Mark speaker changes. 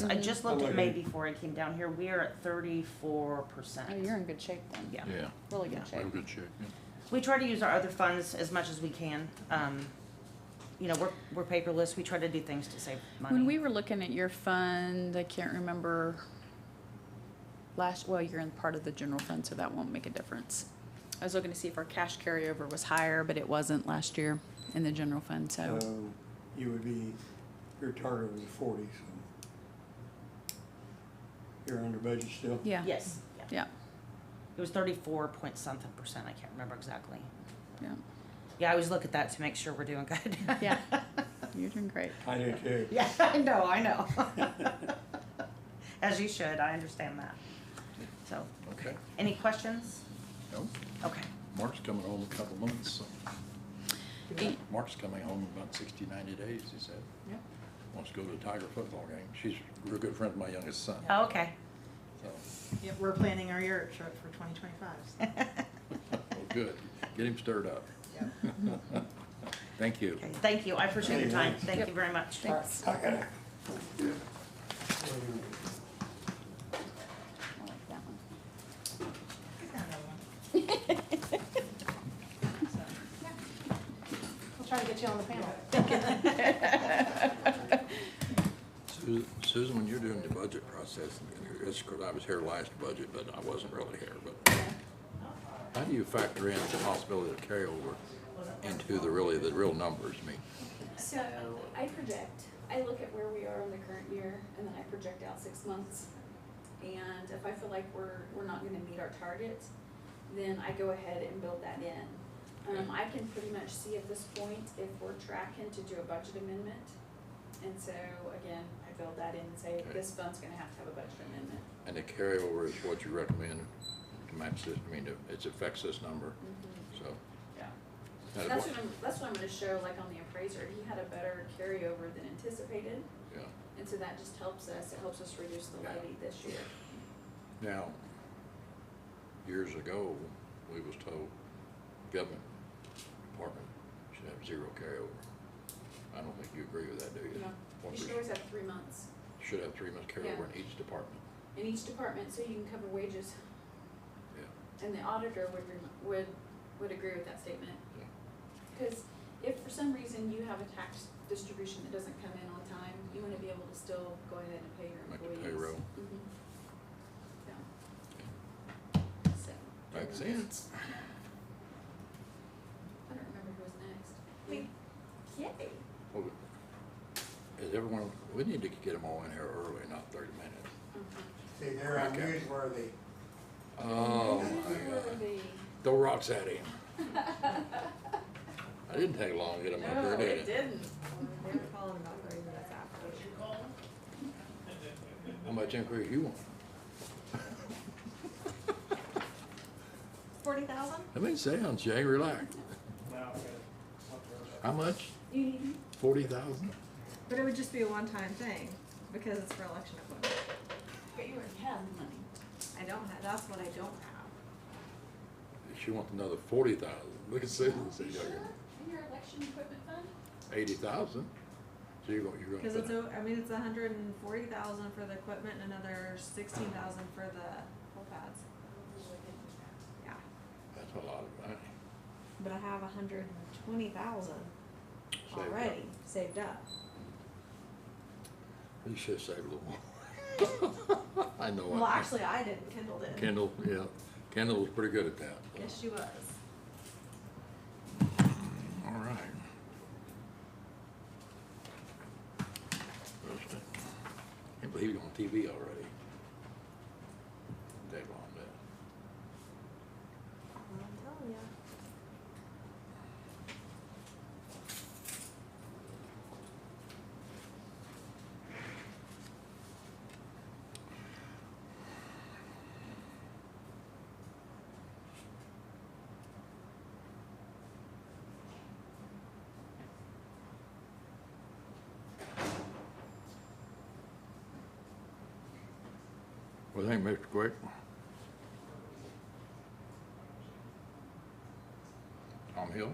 Speaker 1: So
Speaker 2: Mm-hmm.
Speaker 1: I just looked at
Speaker 3: Okay.
Speaker 1: May before I came down here, we are at thirty-four
Speaker 2: Oh, you're
Speaker 1: percent.
Speaker 2: in good shape then.
Speaker 1: Yeah.
Speaker 4: Yeah,
Speaker 2: Really
Speaker 1: Yeah.
Speaker 2: good
Speaker 4: we're in
Speaker 2: shape.
Speaker 4: good shape, yeah.
Speaker 1: We try to use our other funds as much as we can. Um, you know, we're, we're paperless, we try to do things to save money.
Speaker 2: When we were looking at your fund, I can't remember last, well, you're in part of the general fund, so that won't make a difference. I was looking to see if our cash carryover was higher, but it wasn't last year in the general fund, so.
Speaker 3: So you would be, your target was forty, so you're under budget still?
Speaker 2: Yeah.
Speaker 1: Yes, yeah.
Speaker 2: Yeah,
Speaker 1: It was thirty-four point something percent, I can't remember exactly.
Speaker 2: yeah.
Speaker 1: Yeah, I always look at that to make sure we're doing good.
Speaker 2: Yeah. You're doing great.
Speaker 3: I do too.
Speaker 1: Yeah, I know, I know. As you should, I understand that. So,
Speaker 4: Okay,
Speaker 1: any questions?
Speaker 4: no,
Speaker 1: Okay.
Speaker 4: Mark's coming home a couple months, so,
Speaker 2: E-
Speaker 4: Mark's coming home in about sixty, ninety days, he said.
Speaker 2: Yep.
Speaker 4: Wants to go to a Tiger football game. She's a real good friend of my youngest son,
Speaker 1: Oh, okay.
Speaker 4: so,
Speaker 5: Yep, we're planning our Europe trip for twenty twenty-five.
Speaker 4: well, good, get him stirred up. Thank you.
Speaker 1: Okay, thank you. I appreciate your time. Thank you
Speaker 2: Yep.
Speaker 1: very much.
Speaker 2: Thanks.
Speaker 3: I gotta,
Speaker 2: I like that one.
Speaker 5: We'll try to get you on the panel.
Speaker 4: Su- Susan, when you're doing the budget process, and it's because I was here last budget, but I wasn't really here, but how do you factor in the possibility of carryover into the really, the real numbers? I mean,
Speaker 6: So I project, I look at where we are in the current year and then I project out six months. And if I feel like we're, we're not gonna meet our target, then I go ahead and build that in. Um, I can pretty much see at this point if we're tracking to do a budget amendment. And so again, I build that in and say, this fund's gonna have to have a budget amendment.
Speaker 4: and the carryover is what you recommend to match this, I mean, to- it affects this number, so.
Speaker 6: Yeah.
Speaker 4: that is
Speaker 6: That's
Speaker 4: what-
Speaker 6: what I'm, that's what I'm gonna show like on the appraiser, he had a better carryover than anticipated.
Speaker 4: Yeah.
Speaker 6: And so that just helps us, it helps us reduce the levy this year.
Speaker 4: Now, years ago, we was told government department should have zero carryover. I don't think you agree with that, do you?
Speaker 6: No.
Speaker 4: One
Speaker 6: You should always
Speaker 4: percent.
Speaker 6: have three months
Speaker 4: Should have three months
Speaker 6: Yeah.
Speaker 4: carryover in each department.
Speaker 6: in each department, so you can cover wages.
Speaker 4: Yeah.
Speaker 6: And the auditor would, rem- would, would agree with that statement.
Speaker 4: Yeah.
Speaker 6: Because if for some reason you have a tax distribution that doesn't come in on time, you wanna be able to still go ahead and pay your
Speaker 4: Make the
Speaker 6: employees.
Speaker 4: payroll. Mm-hmm.
Speaker 6: Mhm. Yeah. Mm-hmm. So.
Speaker 4: Makes sense.
Speaker 6: I don't remember who was next.
Speaker 5: Me.
Speaker 6: Yay.
Speaker 4: Well, Is everyone, we need to get them all in here early, not thirty minutes.
Speaker 6: Mhm.
Speaker 3: see, they're
Speaker 4: Okay.
Speaker 3: unusual,
Speaker 4: Oh, my God.
Speaker 6: Really?
Speaker 4: Throw rocks at him. I didn't take long to get him up
Speaker 6: No,
Speaker 4: there, did
Speaker 6: it didn't.
Speaker 5: They were calling about thirty minutes after.
Speaker 4: How much increase you want?
Speaker 5: Forty thousand?
Speaker 4: That means sound, Jay, relax. How much?
Speaker 6: You need,
Speaker 4: Forty thousand?
Speaker 5: But it would just be a one-time thing, because it's for election equipment.
Speaker 6: but you already have the money.
Speaker 5: I don't have, that's what I don't have.
Speaker 4: She wants another forty thousand. Look at Susan, see,
Speaker 6: In your election equipment fund?
Speaker 4: eighty thousand. So you're going, you're going.
Speaker 5: Cause it's a, I mean, it's a hundred and forty thousand for the equipment and another sixteen thousand for the whole pads. Yeah,
Speaker 4: That's a lot of money.
Speaker 5: but I have a hundred and twenty thousand
Speaker 4: Saved up.
Speaker 5: already saved up.
Speaker 4: You should save a little more. I know. I-
Speaker 5: Well, actually, I didn't, Kendall did.
Speaker 4: Kendall, yeah, Kendall was pretty good at that.
Speaker 5: Yes, she was.
Speaker 4: All right. Can't believe you're on TV already. That long, that.
Speaker 5: Well, I'm telling ya.
Speaker 4: Well, thank you, Mr. Quick. Tom Hill?